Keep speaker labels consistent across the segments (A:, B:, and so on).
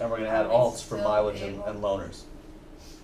A: And we're gonna add
B: Are we
A: alts for
B: still
A: mileage and,
B: able-
A: and loaners,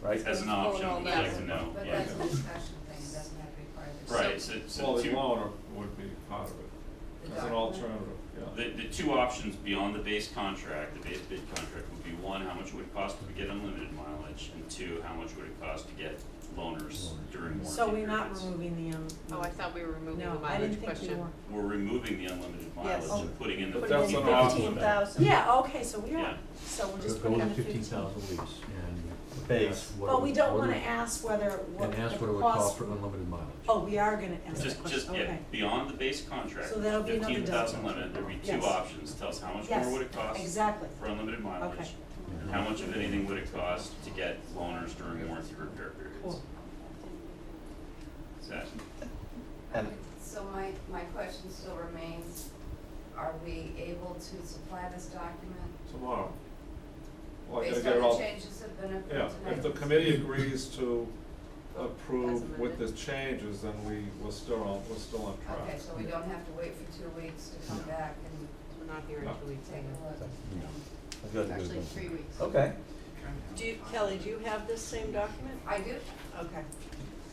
A: right?
C: As an option, we'd like to know,
B: But
C: yeah.
B: that's a discussion thing, it doesn't have to be part of the.
C: Right, so, so
D: Well, the
C: two,
D: loan would be part of it,
B: the
D: as an
B: document.
D: alternative, yeah.
C: the, the two options beyond the base contract, the base bid contract would be one, how much would it cost to get unlimited mileage? And two, how much would it cost to get loaners during warranty periods?
E: So we're not removing the, um.
F: Oh, I thought we were removing the
E: No, I
F: mileage
E: didn't think we
F: question.
E: were.
C: We're removing the unlimited mileage
E: Yes.
C: and putting in the
D: Oh. But
C: fifteen
D: that's
C: thousand.
D: an option.
G: Fifteen thousand.
E: Yeah, okay, so we
C: Yeah.
E: are, so we'll just put
G: Go
E: it
G: to
E: on the
G: fifteen
E: fifteen.
G: thousand weeks and.
A: Base.
G: ask what it
E: But we
G: would-
E: don't
G: what it
E: wanna
G: would-
E: ask whether what
G: And ask
E: the
G: what it would
E: cost.
G: cost for unlimited mileage.
E: Oh, we are gonna ask that
C: Just, just,
E: question,
C: yeah,
E: okay.
C: beyond the base contract,
E: So that'll be another
C: fifteen thousand
E: dozen.
C: limit, there'd be two
E: Yes.
C: options, tell us how much more would it cost
E: Yes, exactly,
C: for unlimited mileage?
E: Okay.
C: And how much of anything would it cost to get loaners during warranty repair periods?
E: cool.
C: Is that-
A: And-
B: Okay, So my, my question still remains, are we able to supply this document
D: Tomorrow. Well, I gotta
B: based
D: get it
B: on the
D: Oh, all,
B: changes that have been approved
D: yeah,
B: tonight?
D: if the committee agrees to
F: As
D: approve with
F: amended.
D: the changes, then we, we're still on, we're still on
B: Okay,
D: track.
B: so we don't have to wait for two weeks to come back and
F: We're not here in
D: No.
F: two weeks
B: take
F: anyway.
B: a look.
G: No.
A: That's good, good,
F: Actually,
A: good.
F: three weeks.
A: Okay,
E: Do you, Kelly, do you have this same document?
B: I do.
E: Okay.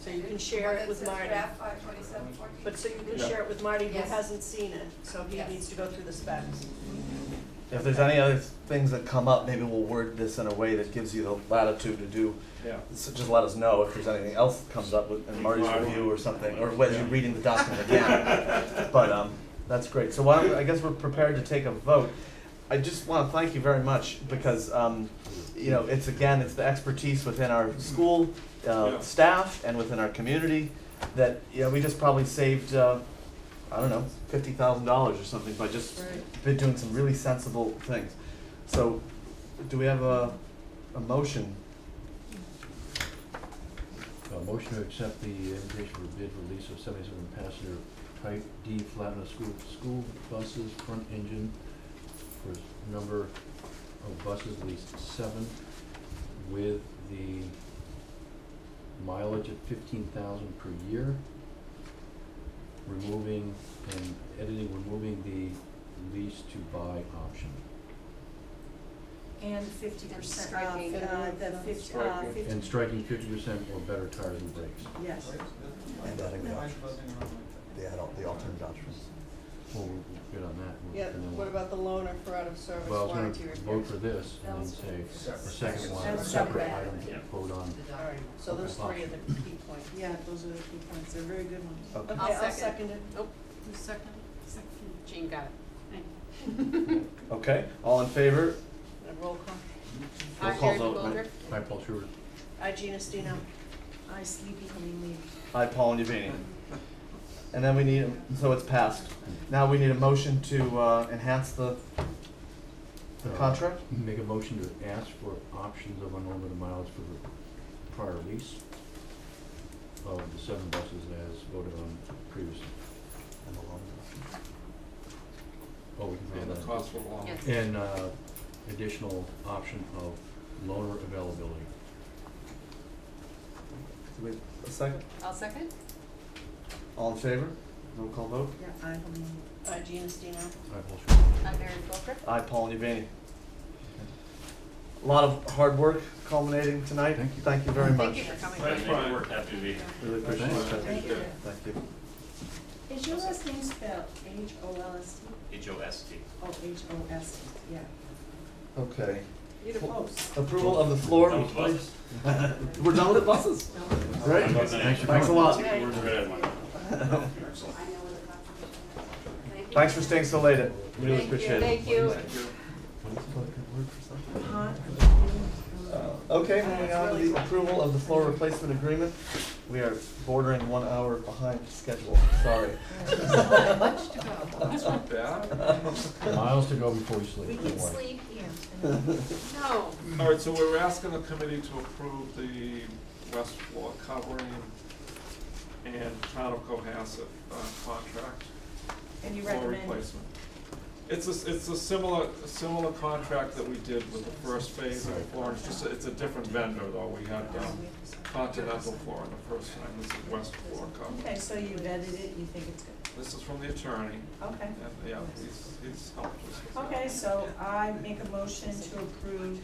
E: So you can share
B: What
E: it with
B: says
E: Marty.
B: draft five twenty-seven fourteen?
E: But so you can
D: Yeah.
E: share it with Marty who
B: Yes.
E: hasn't seen it, so he
B: Yes.
E: needs to go through the specs.
A: if there's any other things that come up, maybe we'll word this in a way that gives you the latitude to do,
D: Yeah,
A: so just let us know if there's anything else that comes up with, in Marty's
D: Marty.
A: review or something, or whether you're reading the document again. But, um, that's great, so why, don't we- I guess we're prepared to take a vote. I just wanna thank you very much, because, um, you know, it's again, it's the expertise within our school, uh,
D: Yeah.
A: staff and within our community that, you know, we just probably saved, uh, I don't know, fifty thousand dollars or something by just
F: Right.
A: been doing some really sensible things. So, do we have a, a motion?
G: Uh, motion to accept the invitation for bid release of seventy-seven passenger type D Flatna school, school buses, front engine for number of buses, at least seven, with the mileage at fifteen thousand per year. Removing and editing, removing the lease to buy option.
E: And fifty percent off,
F: striking.
E: uh, the fifty, uh,
D: Striking.
E: fifty,
G: And striking fifty percent or better tires and brakes,
E: yes.
A: And adding the
E: No.
A: options, the adult, the alternate options.
G: well, we'll get on that. we'll-
H: Yeah,
G: and then
H: what
G: we'll-
H: about the loaner for out of service
G: Well, I was
H: warranty
G: gonna
H: repairs?
G: vote for this and then say, the second one,
E: That's
G: separate
E: separate.
G: item to
C: Yeah.
G: vote on.
F: The
H: All right,
F: document.
H: so those three are the key points.
E: Yeah.
H: Yeah, those are the key points, they're very good ones.
A: Okay.
E: Okay, I'll
F: second.
E: second it.
F: Who's second? Jean Oh. got it.
A: Okay, all in favor?
H: And roll
A: Roll
H: call.
F: Hi,
A: call
F: Mary
A: vote,
F: Goldrick.
A: right?
G: Hi, Paul Schubert.
E: I, Gina Stino. I, Sleepy Honey
A: Aye, Paul and Yavini. And then we need, so it's passed. Now we need a motion to, uh, enhance the, the
G: Uh,
A: contract?
G: Make a motion to ask for options of unlimited miles for the prior lease of the seven buses as voted on previously. Oh, we can
D: and the
G: add that.
D: cost will go on.
F: Yes.
G: And, uh, additional option of loaner availability.
A: Do we have a second?
F: I'll second.
A: All in favor? Roll call vote.
H: Yeah, I believe.
E: I, Gina Stino.
G: Hi, Paul Schubert.
F: I'm Mary Goldrick.
A: Aye, Paul and Yavini. A lot of hard work culminating tonight.
G: Thank you.
A: Thank you very much.
F: Thank you for coming.
C: Right,
D: That's
C: make it
D: fine.
C: work, happy to be here.
A: Really appreciate it.
G: Thank
A: Thank you.
D: you.
A: Thank you.
H: Is your last name spelled H O L S T?
C: H O S T.
H: Oh, H O S T, yeah.
A: Okay.
H: You're the host.
A: Approval of the floor.
C: That was buses.
A: We're done with buses. Great.
C: Good night.
A: Thanks a lot.
C: We're good, everyone.
B: I know where the contribution is. Thank you.
A: Thanks for staying so late. Really
F: Thank you.
A: appreciate it.
F: Thank you.
E: Huh?
A: Uh, Okay, moving on to the approval of the floor replacement agreement. We are bordering one hour behind schedule. Sorry.
F: Much to go.
D: That's not bad.
G: Miles to go before you sleep.
E: We
G: don't
E: can
G: worry.
E: sleep here.
F: No.
D: All right, so we're asking the committee to approve the west floor covering and town of Cohasset, uh, contract.
E: And you
D: Floor
E: recommend
D: replacement. It's a, s- it's a similar, a similar contract that we did with the first phase of Florence, just, a- it's a different vendor though, we had, um, Continental Floor in the first time, this is West Floor Company.
E: Okay, so you vetted it, and you think it's good.
D: This is from the attorney,
H: Okay.
D: and, yeah, he's, he's helped us with that.
H: Okay, so I make a motion to approve